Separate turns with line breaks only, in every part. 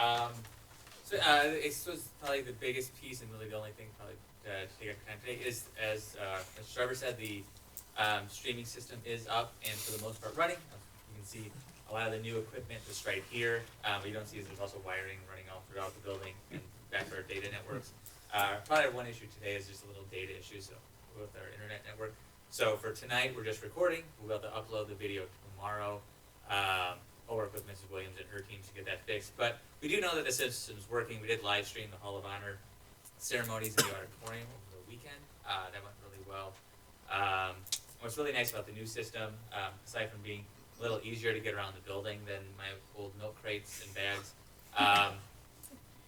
Um, So uh, it's was probably the biggest piece and really the only thing probably uh, to take up time today is as uh, as Trevor said the um, streaming system is up and for the most part running. You can see a lot of the new equipment just right here. Um, what you don't see is there's also wiring running all throughout the building and back to our data networks. Uh, probably one issue today is just a little data issue so with our internet network. So for tonight we're just recording. We'll be able to upload the video tomorrow. Um, I'll work with Mrs. Williams and her teams to get that fixed. But we do know that the system's working. We did live stream the Hall of Honor ceremonies in the auditorium over the weekend. Uh, that went really well. Um, what's really nice about the new system, um, aside from being a little easier to get around the building than my old milk crates and bags, um,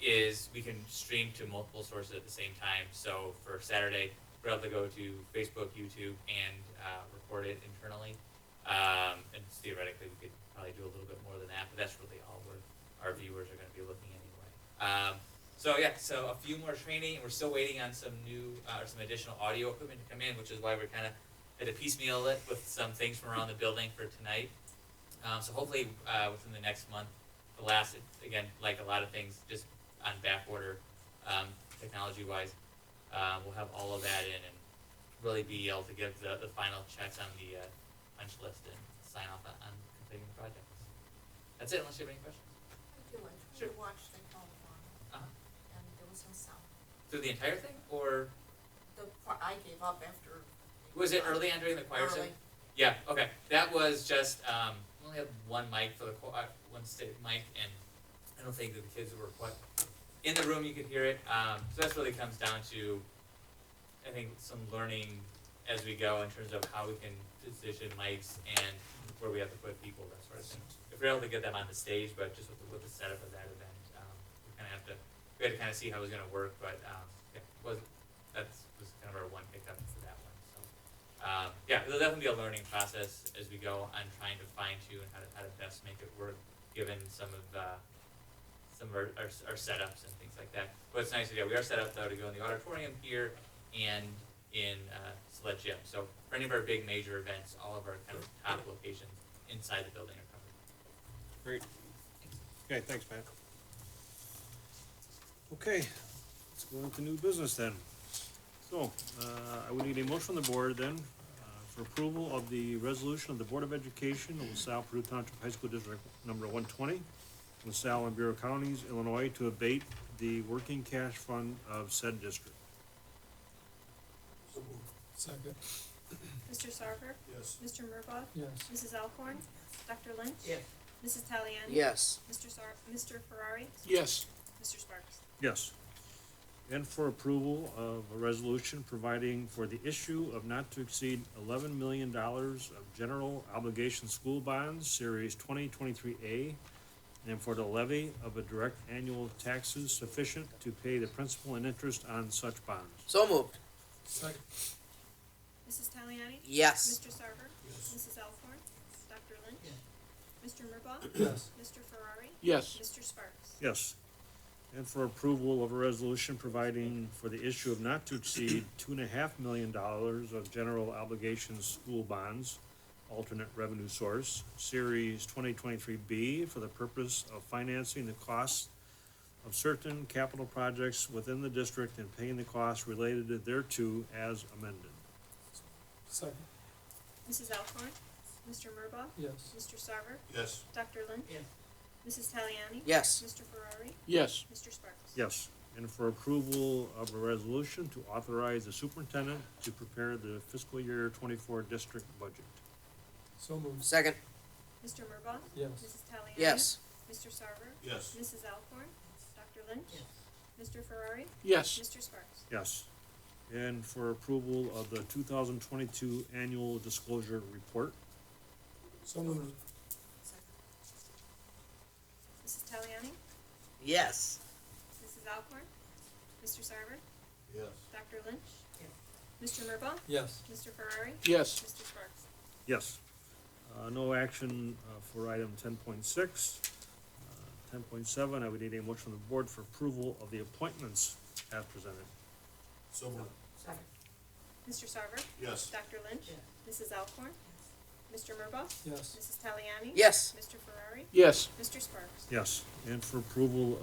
is we can stream to multiple sources at the same time. So for Saturday, we're able to go to Facebook, YouTube, and uh, record it internally. Um, and theoretically, we could probably do a little bit more than that, but that's really all we're, our viewers are going to be looking anyway. Um, so yeah, so a few more training, and we're still waiting on some new uh, or some additional audio equipment to come in, which is why we're kind of at a piecemeal it with some things from around the building for tonight. Um, so hopefully uh, within the next month, the last again, like a lot of things, just on back order, um, technology wise, uh, we'll have all of that in and really be able to give the, the final checks on the uh, punch list and sign off on, on completing the project. That's it, unless you have any questions.
I do like
Sure.
to watch the whole one,
Uh-huh.
and there was some sound.
Through the entire thing, or
The part I gave up after.
was it early on during the choir? sing?
Early.
Yeah. Okay. That was just um, we only had one mic for the cho- uh, one sta- mic, and I don't think that the kids were quite in the room. You could hear it. Um, so that's really comes down to, I think, some learning as we go in terms of how we can position mics and where we have to put people, that sort of thing. If we're able to get them on the stage, but just with the, with the setup of that event, um, we kind of have to we had to kind of see how it was going to work. But um, yeah, was that was kind of our one pickup for that one. So. Um, yeah, there'll definitely be a learning process as we go on trying to fine tune how to, how to best make it work, given some of uh, some of our, our, our setups and things like that. But it's nice to yeah, we are set up though to go in the auditorium here and in uh, Sled Gym. So for any of our big major events, all of our kind of top locations inside the building are covered.
Great. Okay, thanks, Pat. Okay, let's go into new business then. So, uh, I would need a motion from the board then, uh, for approval of the resolution of the Board of Education of LaSalle Purdue Township High School District Number one twenty, LaSalle and Bureau Counties, Illinois, to abate the working cash fund of said district.
Second.
Mr. Sarver?
Yes.
Mr. Murbaugh?
Yes.
Mrs. Alcorn? Dr. Lynch?
Yeah.
Mrs. Taliani?
Yes,
Mr. Sar- Mr. Ferrari?
Yes.
Mr. Sparks?
Yes. And for approval of a resolution providing for the issue of not to exceed eleven million dollars of general obligation school bonds, series twenty twenty-three A, and for the levy of a direct annual taxes sufficient to pay the principal and interest on such bonds.
so moved.
Second.
Mrs. Taliani?
Yes,
Mr. Sarver?
Yes.
Mrs. Alcorn? Dr. Lynch? Mr. Murbaugh?
Yes.
Mr. Ferrari?
Yes.
Mr. Sparks?
Yes. And for approval of a resolution providing for the issue of not to exceed two and a half million dollars of general obligations school bonds, alternate revenue source, series twenty twenty-three B, for the purpose of financing the costs of certain capital projects within the district and paying the costs related thereto as amended.
Second.
Mrs. Alcorn? Mr. Murbaugh?
Yes.
Mr. Sarver?
Yes.
Dr. Lynch?
Yeah.
Mrs. Taliani?
yes,
Mr. Ferrari?
Yes.
Mr. Sparks?
Yes, and for approval of a resolution to authorize the superintendent to prepare the fiscal year twenty-four district budget.
So moved.
second,
Mr. Murbaugh?
Yes.
Mrs. Taliani?
yes,
Mr. Sarver?
Yes.
Mrs. Alcorn? Dr. Lynch?
Yes.
Mr. Ferrari?
Yes.
Mr. Sparks?
Yes. And for approval of the two thousand twenty-two annual disclosure report.
So moved.
Mrs. Taliani?
yes,
Mrs. Alcorn? Mr. Sarver?
Yes.
Dr. Lynch? Mr. Murbaugh?
Yes.
Mr. Ferrari?
Yes.
Mr. Sparks?
Yes. Uh, no action, uh, for item ten point six. Uh, Ten point seven, I would need a motion from the board for approval of the appointments as presented.
So moved.
Mr. Sarver?
Yes.
Dr. Lynch? Mrs. Alcorn? Mr. Murbaugh?
Yes.
Mrs. Taliani?
yes.
Mr. Ferrari?
Yes.
Mr. Sparks?
Yes, and for approval